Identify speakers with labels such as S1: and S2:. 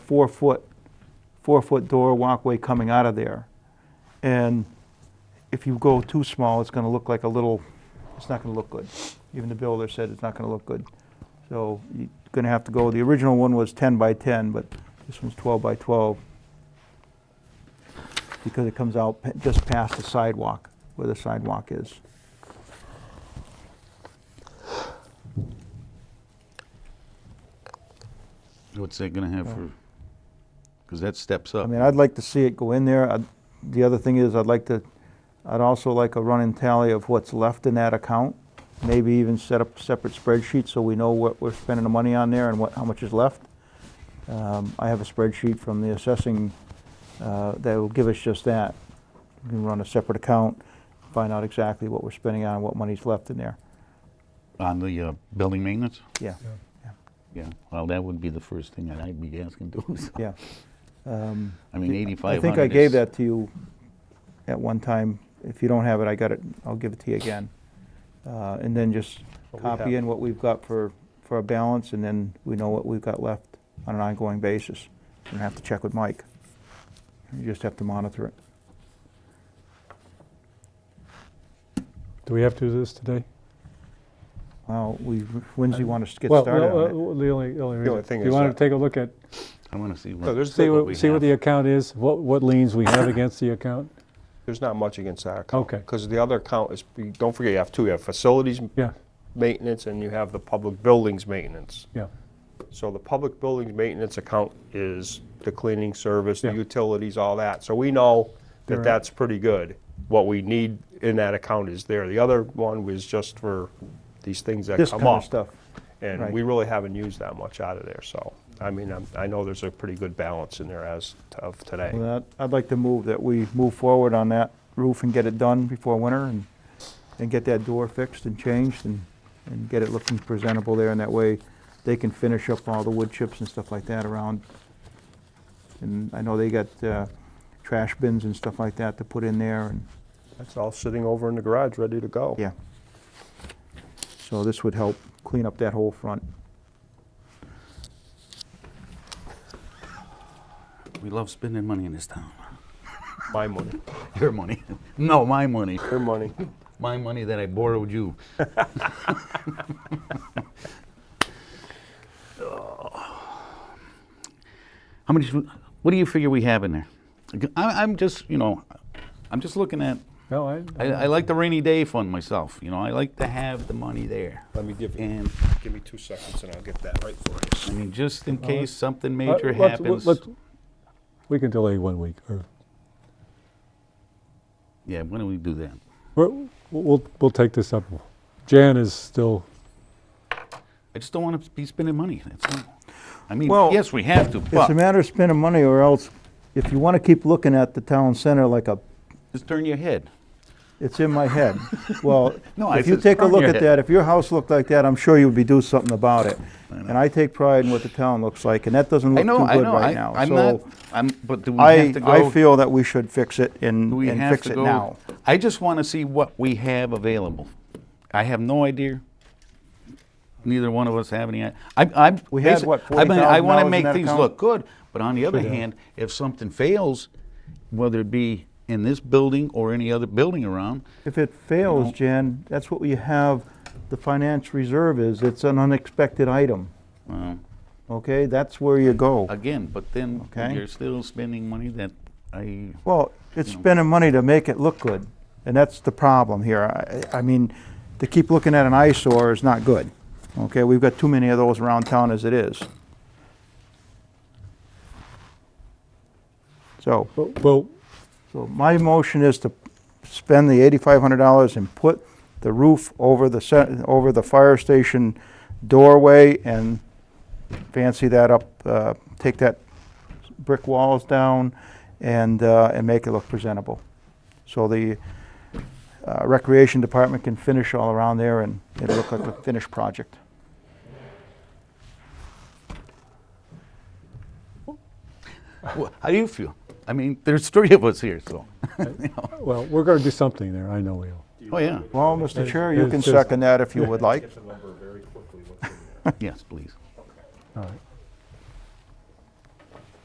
S1: four-foot, four-foot door walkway coming out of there. And if you go too small, it's gonna look like a little, it's not gonna look good. Even the builder said it's not gonna look good. So you're gonna have to go, the original one was ten by ten, but this one's twelve by twelve. Because it comes out pa- just past the sidewalk, where the sidewalk is.
S2: What's that gonna have for, because that steps
S1: Oh. I
S2: up.
S1: mean, I'd like to see it go in there. I'd- The other thing is, I'd like to, I'd also like a running tally of what's left in that account. Maybe even set up a separate spreadsheet so we know what we're spending the money on there and what, how much is left. Um, I have a spreadsheet from the assessing uh, that will give us just that. We can run a separate account, find out exactly what we're spending on, what money's left in there.
S2: On the uh, building maintenance?
S1: Yeah,
S2: Yeah, well, that would be the first thing that I'd be asking to. so.
S1: yeah. Um,
S2: I mean,
S1: I
S2: 8,500
S1: think I gave
S2: is-
S1: that to you at one time. If you don't have it, I got it, I'll give it to you again. Uh, And then just
S3: What we
S1: copy
S3: have.
S1: in what we've got for, for a balance, and then we know what we've got left on an ongoing basis. You don't have to check with Mike. You just have to monitor it.
S3: Do we have to do this today?
S1: Well, we, Wednesday want us to get
S3: Well,
S1: started on
S3: well,
S1: it.
S3: uh, The only, only reason,
S4: thing
S3: do you
S4: is
S3: want
S4: that-
S3: to take a look at,
S2: I wanna see
S4: No,
S2: what,
S4: there's,
S3: see
S4: there's
S2: we
S3: what, see what
S2: have.
S3: the account is, what, what liens we have against the account?
S4: not much against that account.
S3: Okay.
S4: Because the other account is, you- don't forget, you have two, you have facilities
S3: Yeah,
S4: maintenance and you have the public buildings maintenance.
S3: yeah,
S4: So the public buildings maintenance account is the cleaning service, the
S3: Yeah.
S4: utilities, all that. So we know
S3: They're-
S4: that that's pretty good. What we need in that account is there. The other one was just for these things
S3: uh,
S4: that
S1: This
S4: come
S1: kind of
S4: up.
S1: stuff. right.
S4: And we really haven't used that much out of there, so, I mean, I'm- I know there's a pretty good balance in there as of today.
S1: Well, that- I'd like to move that we move forward on that roof and get it done before winter and, and get that door fixed and changed and, and get it looking presentable there. And that way, they can finish up all the wood chips and stuff like that around. And I know they got uh, trash bins and stuff like that to put in there and,
S4: That's all sitting over in the garage, ready to go.
S1: yeah. So this would help clean up that whole front.
S2: we love spending money in this town.
S4: My money,
S2: Your money. No, my money.
S4: your money.
S2: My money that I borrowed you. How many, what do you figure we have in there? I, I'm just, you know, I'm just looking at,
S3: no, I,
S2: I, I like the rainy day fund myself, you know, I like to have the money there.
S4: Let me give,
S2: And,
S4: give me two seconds and I'll get that right for you.
S2: I mean, just
S1: Uh-huh.
S2: in case something
S3: Uh,
S2: major
S3: let's-
S2: happens.
S3: let's- We can delay one week, or,
S2: Yeah, when do we do that?
S3: we're- we'll, we'll take this up. Jan is still,
S2: I just don't want to be spending money, that's all. I mean,
S1: Well,
S2: yes, we have to,
S1: It's a
S2: but
S1: matter of spending money or else, if you want to keep looking at the town center like a
S2: just turn your head.
S1: It's in my head. Well,
S2: No, I
S1: if you
S2: said
S1: take a
S2: from
S1: look
S2: your
S1: at
S2: head.
S1: that, if your house looked like that, I'm sure you'd be doing something about it. And I take pride in what the town looks like, and that doesn't
S2: I
S1: look
S2: know,
S1: too
S2: I
S1: good
S2: know,
S1: right
S2: I,
S1: now.
S2: I'm
S1: So
S2: not, I'm, but do we
S1: I,
S2: have to go?
S1: I feel that we should fix it and,
S2: do we
S1: and
S2: have
S1: fix
S2: to
S1: it
S2: go-
S1: now.
S2: I just want to see what we have available. I have no idea. Neither one of us have any, I, I'm.
S1: We had, what,
S2: I mean, I want
S1: $40,000
S2: to
S1: in
S2: make
S1: that
S2: things
S1: account?
S2: look good, but on the other hand, if something fails, whether it be in this building or any other building around,
S1: If it fails, Jan, that's what we have, the finance reserve is, it's an unexpected item,
S2: well,
S1: okay? That's where you go.
S2: again, but then
S1: Okay.
S2: you're still spending money that I,
S1: Well, it's spending money to make it look good, and that's the problem here. I, I mean, to keep looking at an eyesore is not good. Okay, we've got too many of those around town as it is. So,
S3: well,
S1: so my motion is to spend the eighty-five hundred dollars and put the roof over the, se- over the fire station doorway and fancy that up, uh, take that brick walls down and, uh, and make it look presentable. So the uh, recreation department can finish all around there and it'll look like a finished project.
S2: Well, how do you feel? I mean, there's three of us here, so.
S3: well, we're going to do something there, I know we will.
S2: Oh, yeah.
S1: Well, Mr. Chair, you
S3: It's
S1: can
S3: just-
S1: second that if you would like.
S2: Yes, please.
S3: All right.